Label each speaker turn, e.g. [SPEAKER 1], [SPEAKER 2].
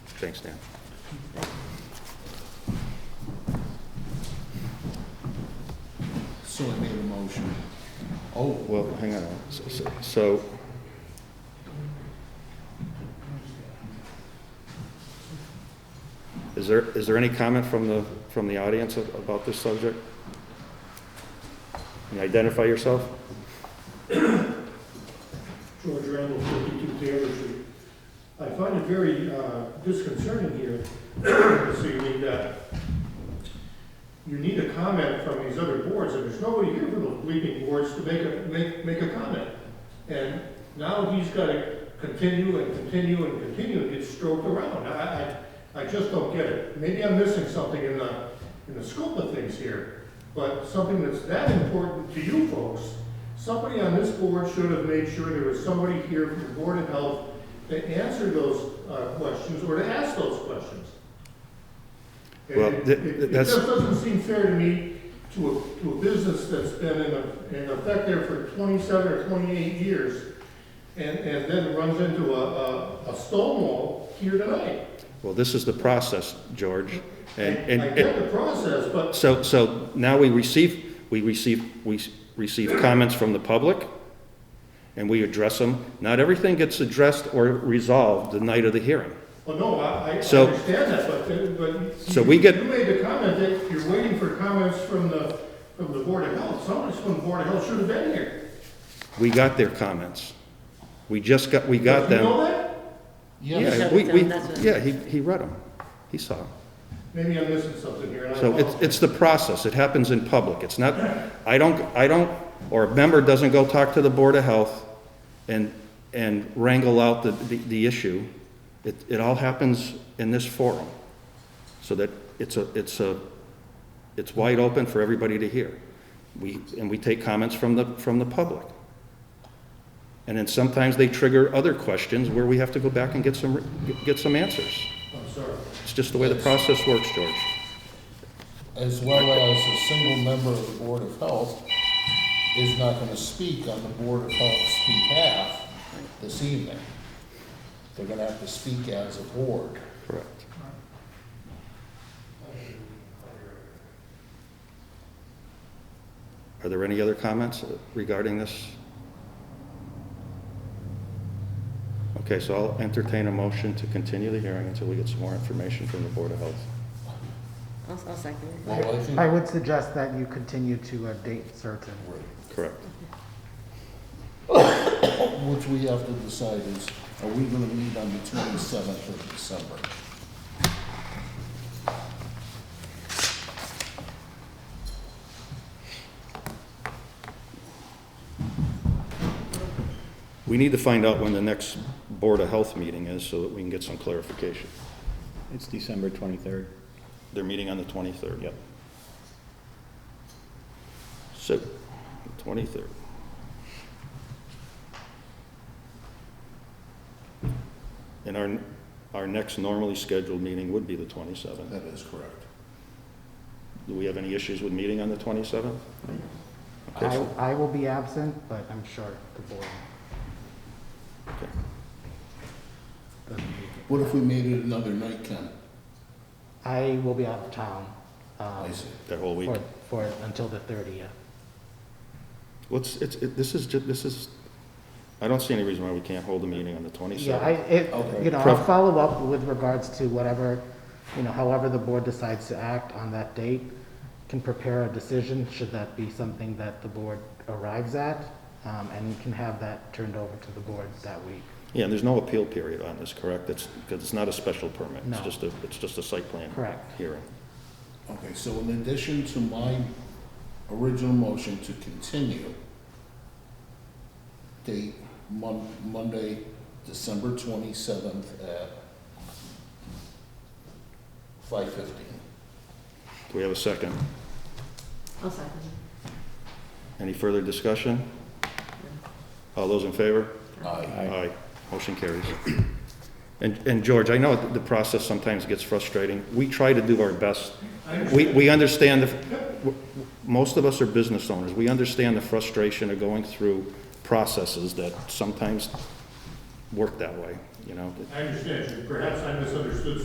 [SPEAKER 1] Thanks, Dan.
[SPEAKER 2] So I made a motion. Oh,
[SPEAKER 1] Well, hang on, So- so- so, is there, is there any comment from the, from the audience a- about this subject? Can you identify yourself?
[SPEAKER 3] George Randall, 52 Taylor Street. I find it very uh, disconcerting here this evening that you need a comment from these other boards, and there's nobody here from the leading boards to make a, make, make a comment. And now he's got to continue and continue and continue and get stroked around. I, I, I just don't get it. Maybe I'm missing something in the, in the scope of things here, but something that's that important to you folks, somebody on this board should have made sure there was somebody here from the Board of Health to answer those uh, questions or to ask those questions. And
[SPEAKER 1] Well,
[SPEAKER 3] it-
[SPEAKER 1] th-
[SPEAKER 3] it- It
[SPEAKER 1] that's-
[SPEAKER 3] just doesn't seem fair to me to a, to a business that's been in, a- in effect there for twenty-seven or twenty-eight years and, and then runs into a, a, a stone wall here tonight.
[SPEAKER 1] Well, this is the process, George, and, and.
[SPEAKER 3] I get the process, but
[SPEAKER 1] So, so now we receive, we receive, we s- receive comments from the public, and we address them. Not everything gets addressed or resolved the night of the hearing.
[SPEAKER 3] Well, oh, no, I, I
[SPEAKER 1] So-
[SPEAKER 3] understand that, but, uh, but.
[SPEAKER 1] So
[SPEAKER 3] you-
[SPEAKER 1] we get-
[SPEAKER 3] You made the comment that you're waiting for comments from the, from the Board of Health. Someone from the Board of Health should have been here.
[SPEAKER 1] We got their comments. We just got, we got
[SPEAKER 3] Did you
[SPEAKER 1] them.
[SPEAKER 3] know that?
[SPEAKER 2] yes.
[SPEAKER 1] Yeah,
[SPEAKER 4] shut
[SPEAKER 1] we,
[SPEAKER 4] it
[SPEAKER 1] we,
[SPEAKER 4] down, that's what-
[SPEAKER 1] yeah, he, he read them. He saw 'em.
[SPEAKER 3] Maybe I'm missing something here, and I
[SPEAKER 1] So it's,
[SPEAKER 3] apologize.
[SPEAKER 1] it's the process. It happens in public. It's not, I don't, I don't, or a member doesn't go talk to the Board of Health and, and wrangle out the, the, the issue. It, it all happens in this forum. So that it's a, it's a, it's wide open for everybody to hear. We, and we take comments from the, from the public. And then sometimes they trigger other questions where we have to go back and get some, get some answers.
[SPEAKER 3] I'm sorry.
[SPEAKER 1] It's just the way the process works, George.
[SPEAKER 2] As well as a single member of the Board of Health is not gonna speak on the Board of Health's behalf this evening. They're gonna have to speak as a board.
[SPEAKER 1] Correct. Are there any other comments regarding this? Okay, so I'll entertain a motion to continue the hearing until we get some more information from the Board of Health.
[SPEAKER 4] I'll, I'll second it.
[SPEAKER 2] Well, I think,
[SPEAKER 5] I would suggest that you continue to a date certain.
[SPEAKER 1] Correct.
[SPEAKER 2] which we have to decide is, are we gonna meet on the twenty-seventh of December?
[SPEAKER 1] We need to find out when the next Board of Health meeting is so that we can get some clarification.
[SPEAKER 6] It's December 23rd.
[SPEAKER 1] They're meeting on the 23rd.
[SPEAKER 6] Yep.
[SPEAKER 1] So, 23rd. And our, our next normally scheduled meeting would be the 27th.
[SPEAKER 2] That is correct.
[SPEAKER 1] Do we have any issues with meeting on the 27th? Okay,
[SPEAKER 5] I,
[SPEAKER 1] so-
[SPEAKER 5] I will be absent, but I'm sure the board.
[SPEAKER 1] okay.
[SPEAKER 2] What if we made it another night, Ken?
[SPEAKER 5] I will be out of town. um,
[SPEAKER 2] I see.
[SPEAKER 1] That whole week.
[SPEAKER 5] For, for, until the thirtieth.
[SPEAKER 1] What's, it's, it- this is, ju- this is, I don't see any reason why we can't hold a meeting on the 27th.
[SPEAKER 5] Yeah, I, it,
[SPEAKER 2] Okay.
[SPEAKER 5] you know,
[SPEAKER 1] Pro-
[SPEAKER 5] I'll follow up with regards to whatever, you know, however the board decides to act on that date. Can prepare a decision, should that be something that the board arrives at, um, and can have that turned over to the board that week.
[SPEAKER 1] Yeah, and there's no appeal period on this, correct? It's, because it's not a special permit. It's
[SPEAKER 5] No.
[SPEAKER 1] just a, it's just a site plan.
[SPEAKER 5] Correct.
[SPEAKER 1] Hearing.
[SPEAKER 2] Okay, so in addition to my original motion to continue, date Mon- Monday, December twenty-seventh at five fifteen.
[SPEAKER 1] Do we have a second?
[SPEAKER 4] I'll second it.
[SPEAKER 1] Any further discussion? All those in favor?
[SPEAKER 2] Aye.
[SPEAKER 1] Aye. Motion carries. And, and George, I know the process sometimes gets frustrating. We try to do our best.
[SPEAKER 3] I understand.
[SPEAKER 1] We, we understand, the- w- w- most of us are business owners. We understand the frustration of going through processes that sometimes work that way, you know?
[SPEAKER 3] I understand you. Perhaps I misunderstood